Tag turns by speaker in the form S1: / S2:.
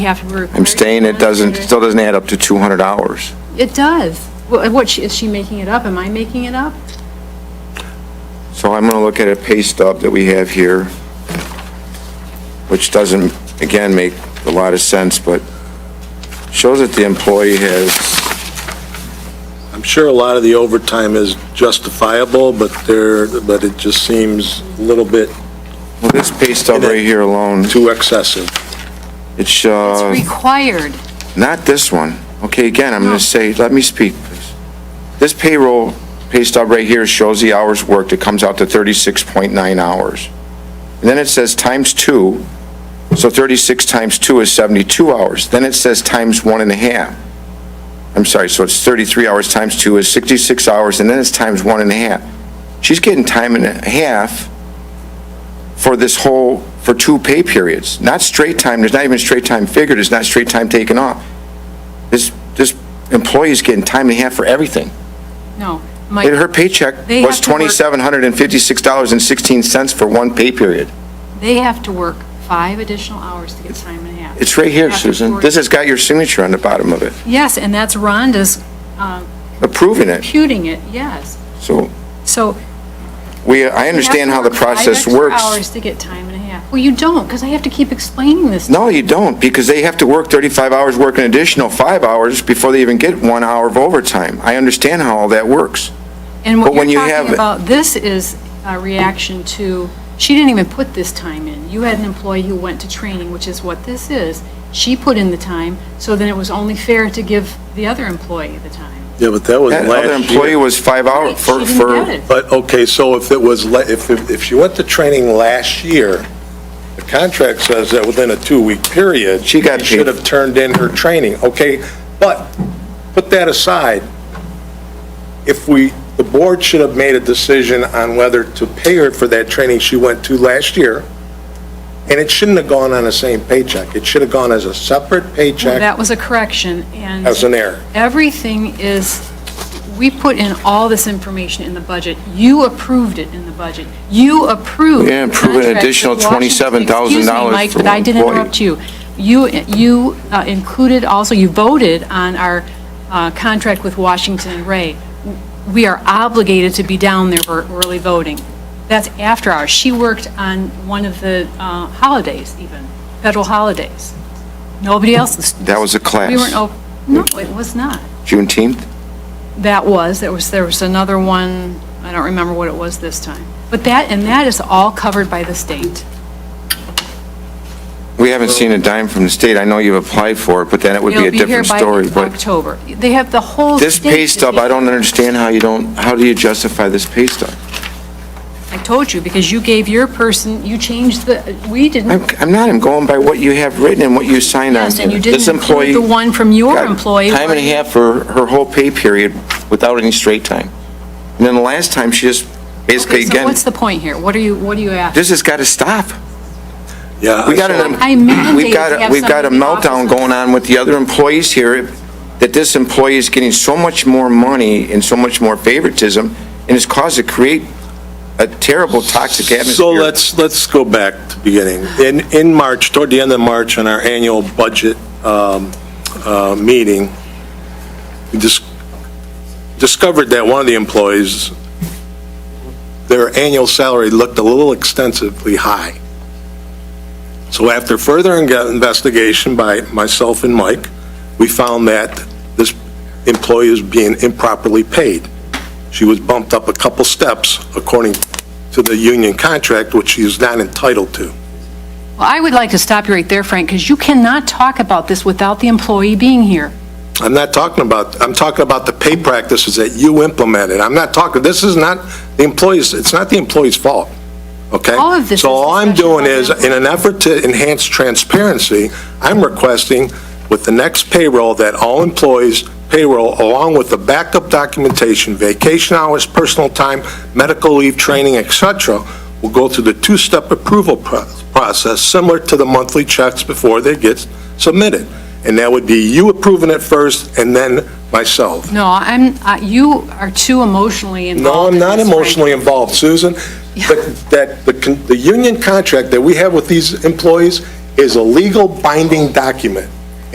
S1: You have to require.
S2: I'm staying, it doesn't, still doesn't add up to 200 hours.
S1: It does. Wha- What, she- is she making it up? Am I making it up?
S2: So I'm going to look at a pay stub that we have here, which doesn't, again, make a lot of sense, but shows that the employee has,
S3: I'm sure a lot of the overtime is justifiable, but there, but it just seems a little bit
S2: well, this pay stub right here alone,
S3: too excessive.
S2: it's,
S1: It's
S2: uh,
S1: required.
S2: not this one. Okay, again, I'm going
S1: No.
S2: to say, let me speak, please. This payroll pay stub right here shows the hours worked, it comes out to 36.9 hours. And then it says times two, so 36 times two is 72 hours. Then it says times one and a half. I'm sorry, so it's 33 hours times two is 66 hours, and then it's times one and a half. She's getting time and a half for this whole, for two pay periods. Not straight time, there's not even straight time figured, there's not straight time taken off. This, this employee's getting time and a half for everything.
S1: No.
S2: And her
S1: Mike,
S2: paycheck
S1: They
S2: was
S1: have to work-
S2: $2,756.16 for one pay period.
S1: they have to work five additional hours to get time and a half.
S2: It's right here,
S1: After
S2: Susan.
S1: four-
S2: This has got your signature on the bottom of it,
S1: Yes, and that's Rhonda's uh,
S2: approving it.
S1: computing it, yes.
S2: So
S1: So. you
S2: we, I
S1: have
S2: understand
S1: to
S2: how the
S1: work five
S2: process
S1: extra
S2: works.
S1: Hours to get time and a half. Well, you don't, because I have to keep explaining this. to
S2: No, you don't, because they have to work 35 hours, work an additional five hours before they even get one hour of overtime. I understand how all that works.
S1: And
S2: But
S1: what
S2: when you
S1: you're talking
S2: have-
S1: about, this is a reaction to, she didn't even put this time in. You had an employee who went to training, which is what this is. She put in the time, so then it was only fair to give the other employee the time.
S3: Yeah, but that was
S2: That other
S3: last
S2: employee
S3: year.
S2: was five hours
S1: She
S2: for,
S1: didn't
S2: for,
S1: get it.
S3: But, okay, so if it was, la- if, if if she went to training last year, the contract says that within a two-week period.
S2: She got
S3: Should
S2: paid.
S3: have turned in her training, okay? But, put that aside, if we, the board should have made a decision on whether to pay her for that training she went to last year, and it shouldn't have gone on the same paycheck. It should have gone as a separate
S1: Well,
S3: paycheck
S1: That was a correction, and.
S3: as an error.
S1: Everything is, we put in all this information in the budget. You approved it in the budget. You approved.
S2: Yeah, approve an
S1: the contract
S2: additional
S1: with Washington-
S2: $27,000
S1: Excuse me, Mike,
S2: for
S1: but I did
S2: one employee.
S1: interrupt you. You, you uh, included also, you voted on our uh, contract with Washington and Ray. We are obligated to be down there for early voting. That's after hours. She worked on one of the uh, holidays even, federal holidays. Nobody else. was-
S2: That was a class.
S1: We weren't, op- no, it was not.
S2: Juneteenth?
S1: That was, there was, there was another one, I don't remember what it was this time. But that, and that is all covered by the state.
S2: We haven't seen a dime from the state. I know you've applied for it, but then it would be a different story.
S1: It'll be here by
S2: But
S1: October. They have the whole.
S2: this
S1: state
S2: pay
S1: to
S2: stub, I
S1: take-
S2: don't understand how you don't, how do you justify this pay stub?
S1: I told you, because you gave your person, you changed the, we
S2: I'm
S1: didn't.
S2: I'm not, I'm going by what you have written and what you signed on.
S1: Yes, and you
S2: here. This
S1: didn't include
S2: employee
S1: the one from your
S2: got
S1: employee.
S2: Time and a
S1: where-
S2: half for her whole pay period without any straight time. And then the last time, she just basically,
S1: Okay, So
S2: again,
S1: what's the point here? What are you, what are you asking?
S2: this has got to stop.
S3: Yeah.
S2: We got
S3: so-
S2: an,
S1: Uh, I mandate
S2: we've
S1: to
S2: got,
S1: have
S2: a- we've got a
S1: somebody in the office
S2: meltdown
S1: on-
S2: going on with the other employees here, that this employee is getting so much more money and so much more favoritism, and it's caused to create a terrible toxic atmosphere.
S3: So let's, let's go back to beginning. In, in March, toward the end of March, in our annual budget um, uh, meeting, we dis- discovered that one of the employees, their annual salary looked a little extensively high. So after further inge- investigation by myself and Mike, we found that this employee is being improperly paid. She was bumped up a couple steps according to the union contract, which she is not entitled to.
S1: Well, I would like to stop you right there, Frank, because you cannot talk about this without the employee being here.
S3: I'm not talking about, I'm talking about the pay practices that you implemented. I'm not talking, this is not the employees, it's not the employee's fault, okay?
S1: All of this
S3: So
S1: is
S3: all I'm
S1: discussion
S3: doing
S1: by the
S3: is, in an effort to enhance transparency, I'm requesting with the next payroll that all employees' payroll, along with the backup documentation, vacation hours, personal time, medical leave, training, et cetera, will go through the two-step approval pro- process, similar to the monthly checks before they get submitted. And that would be you approving it first, and then myself.
S1: No, I'm, uh, you are too emotionally
S3: No,
S1: involved.
S3: I'm
S1: in
S3: not
S1: this, Frank.
S3: emotionally involved, Susan. The- That, the con- the union contract that we have with these employees is a legal binding document.